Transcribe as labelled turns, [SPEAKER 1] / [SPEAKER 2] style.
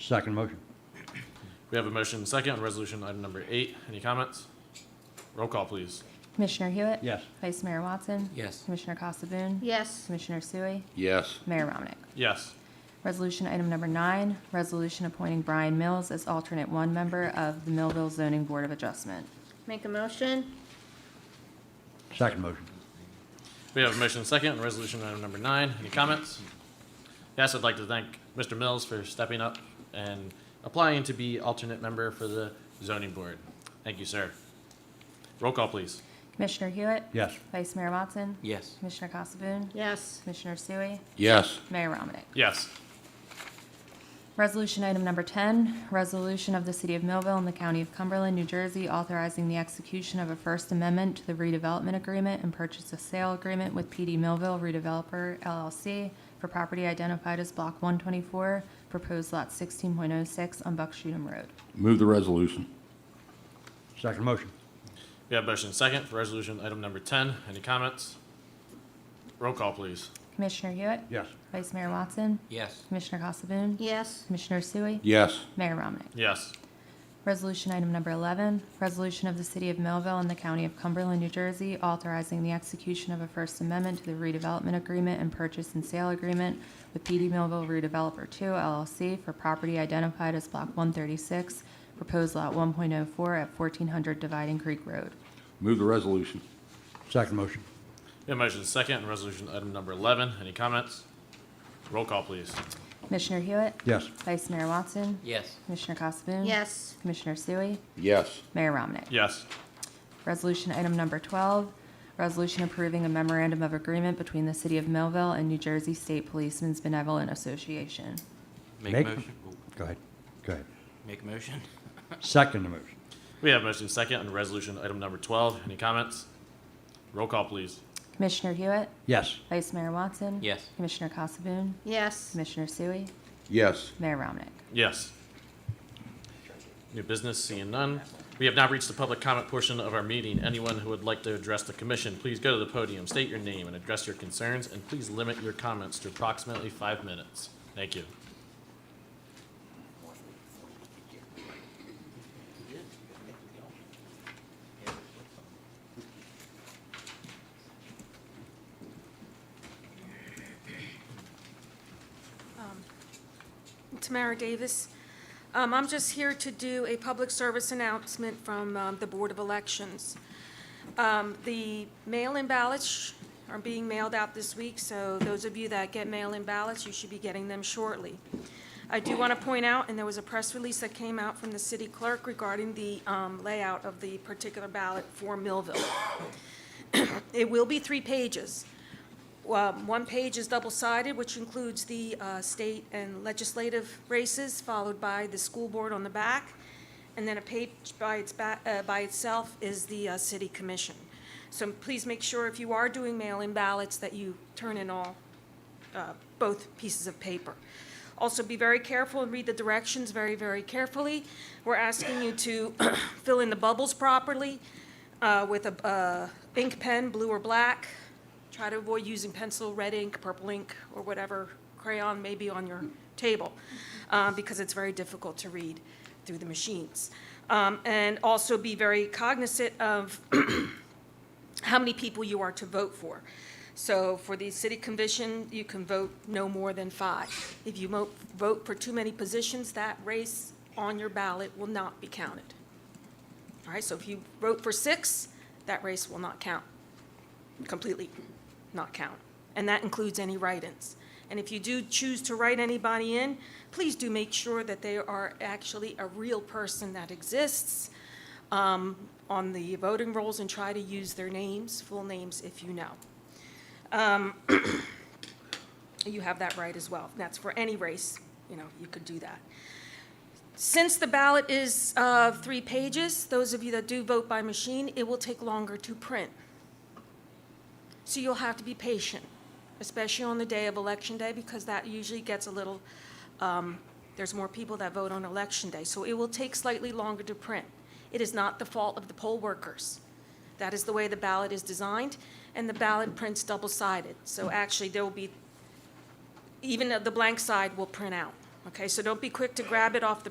[SPEAKER 1] Second motion.
[SPEAKER 2] We have a motion second on resolution item number eight. Any comments? Roll call, please.
[SPEAKER 3] Commissioner Hewitt?
[SPEAKER 1] Yes.
[SPEAKER 3] Vice Mayor Watson?
[SPEAKER 4] Yes.
[SPEAKER 3] Commissioner Costa Boone?
[SPEAKER 5] Yes.
[SPEAKER 3] Commissioner Sui?
[SPEAKER 6] yes,
[SPEAKER 3] Mayor Ramnick.
[SPEAKER 2] Yes.
[SPEAKER 3] Resolution item number nine, resolution appointing Brian Mills as alternate one member of the Millville Zoning Board of Adjustment.
[SPEAKER 5] Make a motion?
[SPEAKER 1] Second motion.
[SPEAKER 2] We have a motion second on resolution item number nine. Any comments? Yes, I'd like to thank Mr. Mills for stepping up and applying to be alternate member for the zoning board. Thank you, sir. Roll call, please.
[SPEAKER 3] Commissioner Hewitt?
[SPEAKER 1] Yes.
[SPEAKER 3] Vice Mayor Watson?
[SPEAKER 4] Yes.
[SPEAKER 3] Commissioner Costa Boone?
[SPEAKER 5] Yes.
[SPEAKER 3] Commissioner Sui?
[SPEAKER 6] yes,
[SPEAKER 3] Mayor Ramnick.
[SPEAKER 2] Yes.
[SPEAKER 3] Resolution item number 10, resolution of the City of Millville and the County of Cumberland, New Jersey, authorizing the execution of a First Amendment to the redevelopment agreement and purchase of sale agreement with PD Millville Redeveloper LLC for property identified as Block 124, proposed lot 16.06 on Buckshootum Road.
[SPEAKER 6] move the resolution,
[SPEAKER 1] Second motion.
[SPEAKER 2] We have motion second for resolution item number ten. Any comments? Roll call, please.
[SPEAKER 3] Commissioner Hewitt?
[SPEAKER 1] Yes.
[SPEAKER 3] Vice Mayor Watson?
[SPEAKER 4] Yes.
[SPEAKER 3] Commissioner Casabun?
[SPEAKER 5] Yes.
[SPEAKER 3] Commissioner Sui?
[SPEAKER 6] yes,
[SPEAKER 3] Mayor Ramnick.
[SPEAKER 2] Yes.
[SPEAKER 3] Resolution item number 11, resolution of the City of Millville and the County of Cumberland, New Jersey, authorizing the execution of a First Amendment to the redevelopment agreement and purchase and sale agreement with PD Millville Redeveloper 2 LLC for property identified as Block 136, proposed lot 1.04 at 1400 Dividing Creek Road.
[SPEAKER 6] move the resolution,
[SPEAKER 1] Second motion.
[SPEAKER 2] We have motion second on resolution item number eleven. Any comments? Roll call, please.
[SPEAKER 3] Commissioner Hewitt?
[SPEAKER 1] Yes.
[SPEAKER 3] Vice Mayor Watson?
[SPEAKER 4] Yes.
[SPEAKER 3] Commissioner Casabun?
[SPEAKER 5] Yes.
[SPEAKER 3] Commissioner Sui?
[SPEAKER 6] yes,
[SPEAKER 3] Mayor Ramnick.
[SPEAKER 2] Yes.
[SPEAKER 3] Resolution item number 12, resolution approving a memorandum of agreement between the City of Millville and New Jersey State Policemen's Benevolent Association.
[SPEAKER 4] Make
[SPEAKER 1] Make-
[SPEAKER 4] a motion. Oh,
[SPEAKER 1] Go ahead. Go ahead.
[SPEAKER 4] Make a motion.
[SPEAKER 1] Second the motion.
[SPEAKER 2] We have motion second on resolution item number twelve. Any comments? Roll call, please.
[SPEAKER 3] Commissioner Hewitt?
[SPEAKER 1] Yes.
[SPEAKER 3] Vice Mayor Watson?
[SPEAKER 4] Yes.
[SPEAKER 3] Commissioner Casabun?
[SPEAKER 5] Yes.
[SPEAKER 3] Commissioner Sui?
[SPEAKER 6] yes,
[SPEAKER 3] Mayor Ramnick.
[SPEAKER 2] Yes. New business, seeing none. We have now reached the public comment portion of our meeting. Anyone who would like to address the commission, please go to the podium, state your name and address your concerns, and please limit your comments to approximately five minutes. Thank you.
[SPEAKER 7] Tamara Davis. Um, I'm just here to do a public service announcement from um, the Board of Elections. Um, The mail-in ballots are being mailed out this week, so those of you that get mail-in ballots, you should be getting them shortly. I do want to point out, and there was a press release that came out from the city clerk regarding the um, layout of the particular ballot for Millville. It will be three pages. Um, One page is double-sided, which includes the uh, state and legislative races, followed by the school board on the back, and then a page by its, ba- uh, by itself is the uh, city commission. So please make sure if you are doing mail-in ballots that you turn in all, uh, both pieces of paper. Also, be very careful and read the directions very, very carefully. We're asking you to fill in the bubbles properly uh, with a uh, ink pen, blue or black. Try to avoid using pencil, red ink, purple ink, or whatever crayon may be on your table, uh, because it's very difficult to read through the machines. Um, And also be very cognizant of how many people you are to vote for. So for the city commission, you can vote no more than five. If you mo- vote for too many positions, that race on your ballot will not be counted. All right, so if you vote for six, that race will not count, completely not count. And that includes any write-ins. And if you do choose to write anybody in, please do make sure that they are actually a real person that exists um, on the voting rolls and try to use their names, full names, if you know. Um, You have that right as well. That's for any race, you know, you could do that. Since the ballot is uh, three pages, those of you that do vote by machine, it will take longer to print. So you'll have to be patient, especially on the day of Election Day, because that usually gets a little, um, there's more people that vote on Election Day, so it will take slightly longer to print. It is not the fault of the poll workers. That is the way the ballot is designed, and the ballot prints double-sided. So actually, there will be, even the blank side will print out, Okay, so don't be quick to grab it off the